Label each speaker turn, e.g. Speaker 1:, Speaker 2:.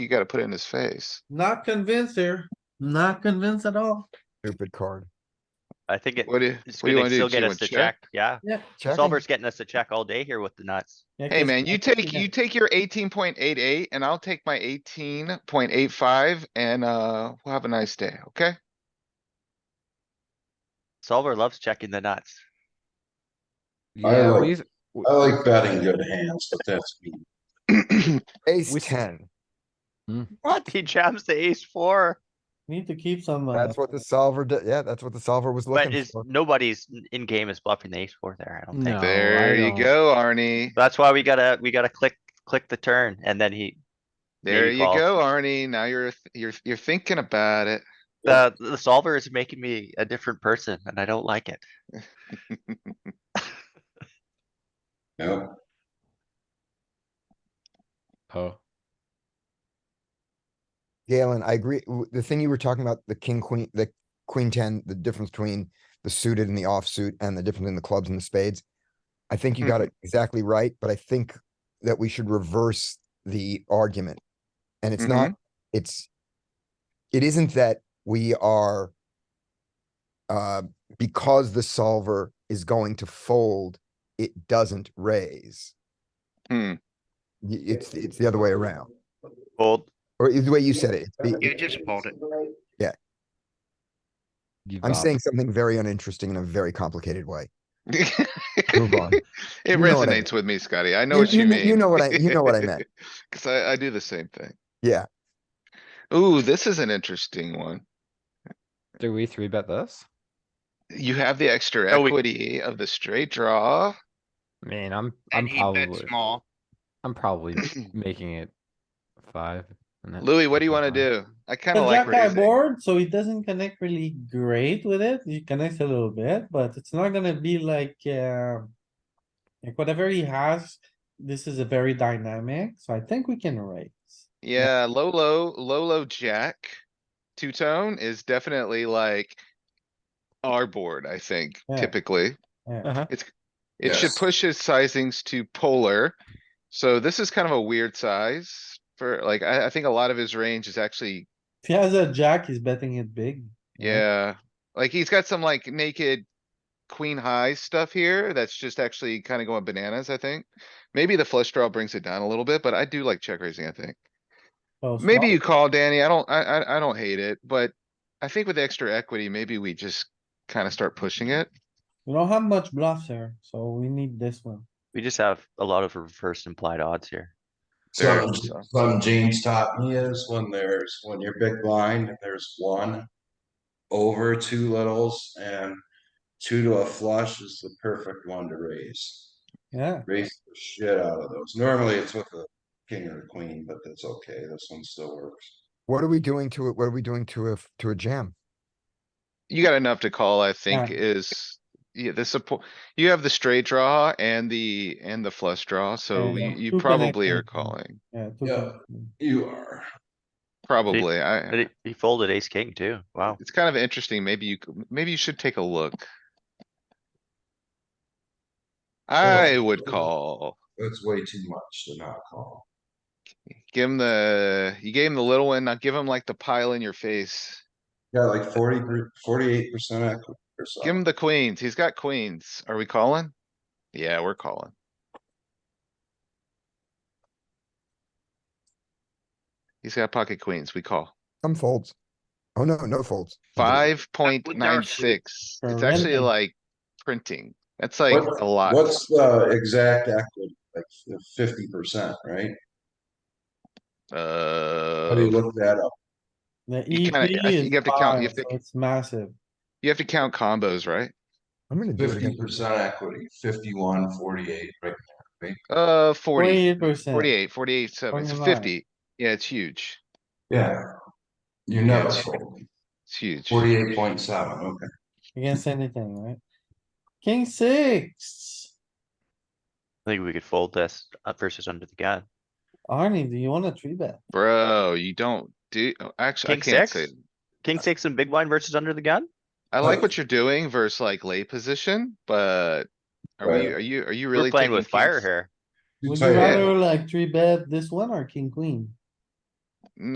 Speaker 1: you gotta put it in his face.
Speaker 2: Not convinced here, not convinced at all.
Speaker 3: Stupid card.
Speaker 4: I think it
Speaker 1: What do you, what
Speaker 4: it's
Speaker 1: do you
Speaker 4: gonna
Speaker 1: wanna do?
Speaker 4: still
Speaker 1: Do you
Speaker 4: get
Speaker 1: wanna
Speaker 4: us to check,
Speaker 1: check?
Speaker 4: yeah.
Speaker 3: Checking.
Speaker 4: Solver's getting us to check all day here with the nuts.
Speaker 2: Yeah,
Speaker 1: Hey,
Speaker 2: 'cause
Speaker 1: man, you
Speaker 2: I'm thinking
Speaker 1: take,
Speaker 2: that-
Speaker 1: you take your eighteen point eight eight and I'll take my eighteen point eight five and, uh, we'll have a nice day, okay?
Speaker 4: Solver loves checking the nuts.
Speaker 5: I
Speaker 3: Yeah,
Speaker 5: like-
Speaker 3: we've,
Speaker 5: I like betting good hands, but that's me.
Speaker 3: ace
Speaker 6: We-
Speaker 3: ten.
Speaker 4: What? He jams the ace four,
Speaker 2: Need to keep some, uh,
Speaker 3: That's what the solver did. Yeah, that's what the solver was
Speaker 4: but
Speaker 3: looking
Speaker 4: is,
Speaker 3: for.
Speaker 4: nobody's in game is bluffing the ace four there, I don't
Speaker 6: No,
Speaker 4: think.
Speaker 1: There
Speaker 6: I
Speaker 1: you
Speaker 6: don't.
Speaker 1: go, Arnie.
Speaker 4: That's why we gotta, we gotta click, click the turn and then he,
Speaker 1: There
Speaker 4: maybe
Speaker 1: you
Speaker 4: calls.
Speaker 1: go, Arnie. Now you're, th- you're, you're thinking about it.
Speaker 4: the, the solver is making me a different person and I don't like it.
Speaker 5: Yeah,
Speaker 6: Oh,
Speaker 3: Galen, I agree. w- The thing you were talking about, the king, queen, the queen ten, the difference between the suited and the offsuit and the difference in the clubs and the spades. I think you got it exactly right, but I think that we should reverse the argument. And it's not, it's, it isn't that we are uh, because the solver is going to fold, it doesn't raise.
Speaker 1: Hmm.
Speaker 3: Y- It's, it's the other way around.
Speaker 4: Fold,
Speaker 3: Or is the way you said it. it's the-
Speaker 7: You just fold it.
Speaker 6: give
Speaker 3: I'm
Speaker 6: up.
Speaker 3: saying something very uninteresting in a very complicated way. Move on.
Speaker 1: It
Speaker 3: You know what I
Speaker 1: resonates with me, Scotty. I know
Speaker 3: You-
Speaker 1: what
Speaker 3: you
Speaker 1: you
Speaker 3: kn-
Speaker 1: mean.
Speaker 3: you know what I- you know what I meant.
Speaker 1: Cause I, I do the same thing.
Speaker 3: Yeah,
Speaker 1: Ooh, this is an interesting one.
Speaker 6: Do we three bet this?
Speaker 1: You have the extra
Speaker 4: Oh, we-
Speaker 1: equity of the straight draw.
Speaker 6: Man, I'm, I'm
Speaker 7: And he bet
Speaker 6: probably,
Speaker 7: small.
Speaker 6: I'm probably making it five. and that-
Speaker 1: Louis, what do you wanna
Speaker 6: that's fine.
Speaker 1: do? I kinda
Speaker 2: Cause
Speaker 1: like
Speaker 2: that guy
Speaker 1: raising.
Speaker 2: board, so he doesn't connect really great with it. He connects a little bit, but it's not gonna be like, uh. Like whatever he has, this is a very dynamic, so I think we can raise.
Speaker 1: Yeah, low, low, low, low jack. Two-tone is definitely like our board, I think,
Speaker 2: Yeah.
Speaker 1: typically.
Speaker 2: Yeah.
Speaker 4: Uh-huh.
Speaker 1: It should
Speaker 5: Yes.
Speaker 1: push his sizings to polar. So this is kind of a weird size for like, I, I think a lot of his range is actually,
Speaker 2: If he has a jack, he's betting it big.
Speaker 1: yeah. Like he's got some like naked queen high stuff here that's just actually kind of going bananas, I think. Maybe the flush draw brings it down a little bit, but I do like check raising, I think.
Speaker 2: So
Speaker 1: Maybe
Speaker 2: small.
Speaker 1: you call Danny. I don't, I, I, I don't hate it, but I think with extra equity, maybe we just kind of start pushing it.
Speaker 2: We don't have much bluffs here, so we need this one.
Speaker 4: we just have a lot of reverse implied odds here.
Speaker 1: There,
Speaker 5: some,
Speaker 1: so.
Speaker 5: some James taught me is when there's, when you're big blind, and there's one over two littles and two to a flush is the perfect one to raise.
Speaker 2: Yeah,
Speaker 5: Raise the shit out of those. Normally it's with a king or a queen, but that's okay. This one still works.
Speaker 3: what are we doing to it? What are we doing to a, f- to a jam?
Speaker 1: You got enough to call, I think,
Speaker 2: Yeah.
Speaker 1: is, yeah, the support, you have the straight draw and the, and the flush draw, so
Speaker 2: yeah.
Speaker 1: you, you
Speaker 2: Two
Speaker 1: probably are
Speaker 2: connections.
Speaker 1: calling.
Speaker 2: yeah. two
Speaker 5: Yeah.
Speaker 2: connections.
Speaker 5: You are.
Speaker 1: Probably,
Speaker 4: But
Speaker 1: I,
Speaker 4: he- he folded ace king too, wow.
Speaker 1: it's kind of interesting, maybe you, c- maybe you should take a look. I would call,
Speaker 5: That's way too much to not call.
Speaker 1: give him the, you gave him the little one, now give him like the pile in your face.
Speaker 5: Yeah, like forty, forty-eight percent equity or
Speaker 1: Give him
Speaker 5: something.
Speaker 1: the queens. He's got queens. Are we calling? Yeah, we're calling. He's got pocket queens. We call.
Speaker 3: Some folds. Oh, no, no folds.
Speaker 1: Five point
Speaker 7: with
Speaker 1: nine
Speaker 7: our-
Speaker 1: six. It's
Speaker 2: For
Speaker 1: actually
Speaker 2: renting.
Speaker 1: like printing. That's like
Speaker 5: What-
Speaker 1: a lot.
Speaker 5: What's the exact equity? Like fifty percent, right? How do you
Speaker 1: Uh,
Speaker 5: look that up?
Speaker 2: The
Speaker 1: You
Speaker 2: EP
Speaker 1: kinda- I think
Speaker 2: is
Speaker 1: you have to count- you
Speaker 2: five,
Speaker 1: have to-
Speaker 2: so it's massive.
Speaker 1: you have to count combos, right?
Speaker 3: I'm gonna do it
Speaker 5: Fifty
Speaker 3: again.
Speaker 5: percent equity, fifty-one, forty-eight, right?
Speaker 1: Uh, forty,
Speaker 2: Forty-eight percent.
Speaker 1: forty-eight, forty-eight, seven, so
Speaker 2: 49.
Speaker 1: fifty. Yeah, it's huge.
Speaker 5: Yeah. You
Speaker 1: Yeah,
Speaker 5: know,
Speaker 1: it's It's huge.
Speaker 5: forty-eight point seven, okay.
Speaker 2: Against anything, right? King six.
Speaker 4: I think we could fold this uh, versus under the gun.
Speaker 2: Arnie, do you wanna three bet?
Speaker 1: Bro, you don't do, oh, actually, I
Speaker 4: King
Speaker 1: can't say.
Speaker 4: six? King six and big blind versus under the gun?
Speaker 1: I like
Speaker 5: Right.
Speaker 1: what you're doing versus like lay position, but are we,
Speaker 5: Right.
Speaker 1: are you, are you really?
Speaker 4: We're playing
Speaker 1: taking
Speaker 4: with fire
Speaker 1: kings?
Speaker 4: here.
Speaker 5: You
Speaker 2: Would
Speaker 5: tell
Speaker 2: you
Speaker 5: you-
Speaker 2: rather like three bet this one or king queen?